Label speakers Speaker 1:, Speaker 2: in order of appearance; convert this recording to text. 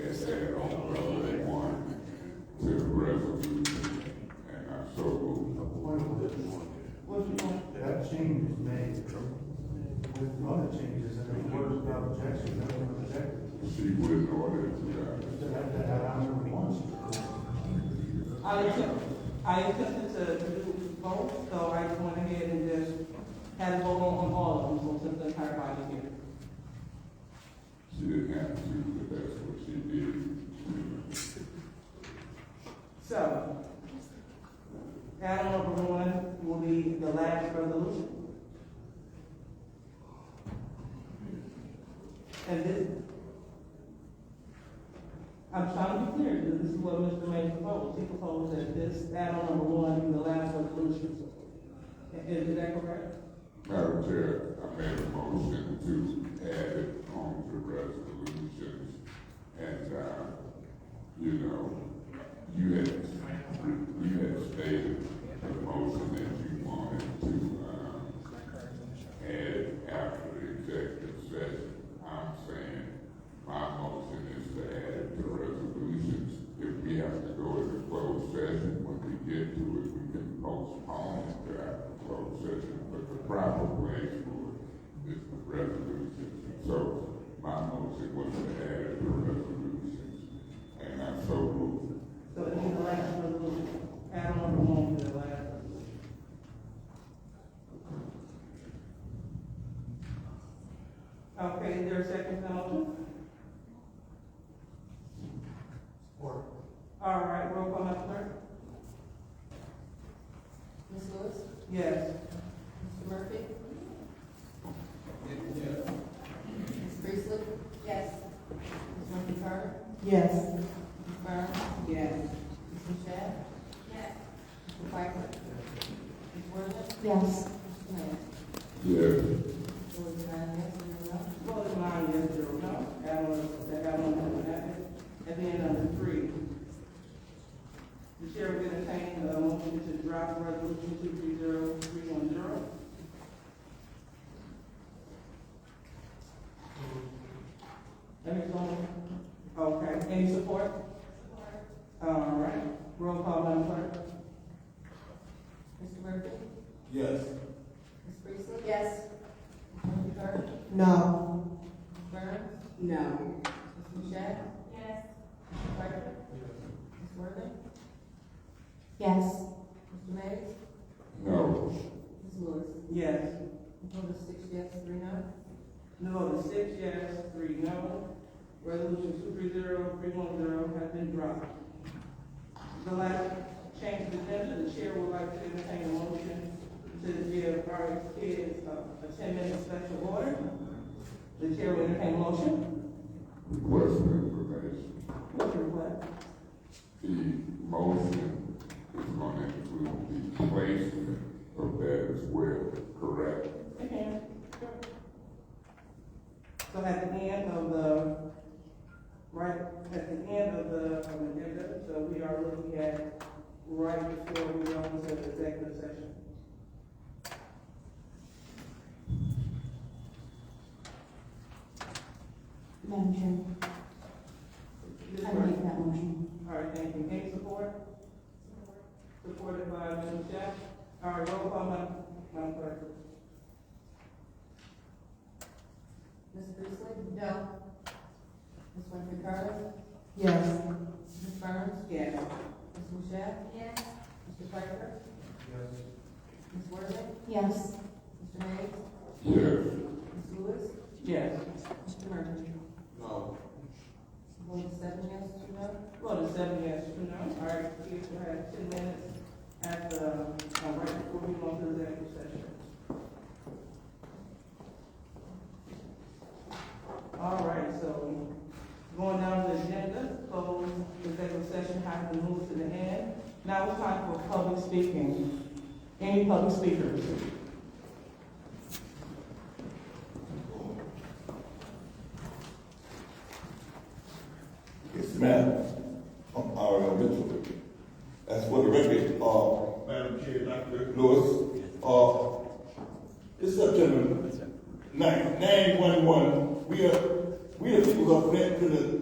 Speaker 1: had on Revelation one to the resolution, and I so moved.
Speaker 2: That change is made with other changes, and it was without objection, that was rejected.
Speaker 1: She wouldn't order it, yeah.
Speaker 2: That, that, that I remember once.
Speaker 3: I attempted, I attempted to do both, so I just went ahead and just had a vote on on all of them, so since the entire body is here.
Speaker 1: She didn't have to, but that's what she did.
Speaker 3: So, item number one will be the last resolution. And this, I'm trying to be clear, because this is what Mr. May proposed, he proposed that this item number one be the last resolution. Is is that correct?
Speaker 1: Madam Chair, I made a motion to add it on the resolutions, and, uh, you know, you had, you had stated the motion that you wanted to, um, add after the executive session. I'm saying, my motion is to add the resolutions. If we have to go into closed session, when we get to it, we can postpone it to after closed session, but the proper place for it is the resolutions. So my motion was to add the resolutions, and I so moved.
Speaker 3: So it is the last resolution, item number one be the last resolution. Okay, is there a second motion?
Speaker 2: Or,
Speaker 3: All right, roll call, Madam Clerk.
Speaker 4: Ms. Lewis?
Speaker 3: Yes.
Speaker 4: Mr. Murphy? Ms. Priestley? Yes. Ms. Murphy Carter?
Speaker 3: Yes.
Speaker 4: Ms. Burns?
Speaker 3: Yes.
Speaker 4: Ms. Michelle? Yes. Mr. Piper? Ms. Worthing?
Speaker 5: Yes.
Speaker 4: Mr. Mayor?
Speaker 1: Yes,
Speaker 4: It was nine yes, zero no.
Speaker 3: Vote is nine yes, zero no. That one, that one doesn't happen. And then number three. The chair will entertain a motion to drop resolution two three zero three one zero. Let me go. Okay, any support? All right, roll call, Madam Clerk.
Speaker 4: Mr. Murphy?
Speaker 2: yes.
Speaker 4: Ms. Priestley? Yes. Ms. Murphy Carter?
Speaker 5: No.
Speaker 4: Ms. Burns?
Speaker 3: No.
Speaker 4: Ms. Michelle? Yes. Mr. Piper? Ms. Worthing?
Speaker 5: Yes.
Speaker 4: Mr. Mays?
Speaker 1: no,
Speaker 4: Ms. Lewis?
Speaker 3: Yes.
Speaker 4: It was six yes, three no.
Speaker 3: No vote is six yes, three no. Resolution two three zero three one zero has been dropped. The last change of agenda, the chair would like to entertain a motion to give our kids uh, a ten minute special order. The chair will entertain a motion.
Speaker 1: request for information.
Speaker 3: Motion what?
Speaker 1: The motion is gonna include the placement of that as well, correct?
Speaker 3: Okay. So at the end of the, right, at the end of the, of the agenda, so we are looking at right before we go into the executive session.
Speaker 5: Madam Chair,
Speaker 3: Ms.
Speaker 5: I
Speaker 3: Burton?
Speaker 5: make that motion.
Speaker 3: All right, thank you. Any support? Supported by Ms. Jack. All right, roll call, Madam, Madam Clerk.
Speaker 4: Ms. Priestley? No. Ms. Winfrey Carter?
Speaker 5: Yes.
Speaker 4: Ms. Burns?
Speaker 3: Yes.
Speaker 4: Ms. Michelle? Yes. Mr. Piper?
Speaker 2: Yes.
Speaker 4: Ms. Worthing?
Speaker 5: Yes.
Speaker 4: Mr. Mays?
Speaker 1: Yes,
Speaker 4: Ms. Lewis?
Speaker 3: Yes.
Speaker 4: Mr. Murphy?
Speaker 2: No.
Speaker 4: Vote seven yes, two no.
Speaker 3: Well, the seven yes, two no. All right, kids will have ten minutes at the, uh, right before we go into the executive session. All right, so going down the agenda, close executive session has been moved to the end. Now it's time for public speaking. Any public speakers?
Speaker 6: Yes, ma'am. I'm Ariel Mitchell. That's for the record, uh,
Speaker 2: Madam Chair, Dr.
Speaker 6: Lewis, uh, it's September nine, nine one one. We are, we are people up there to the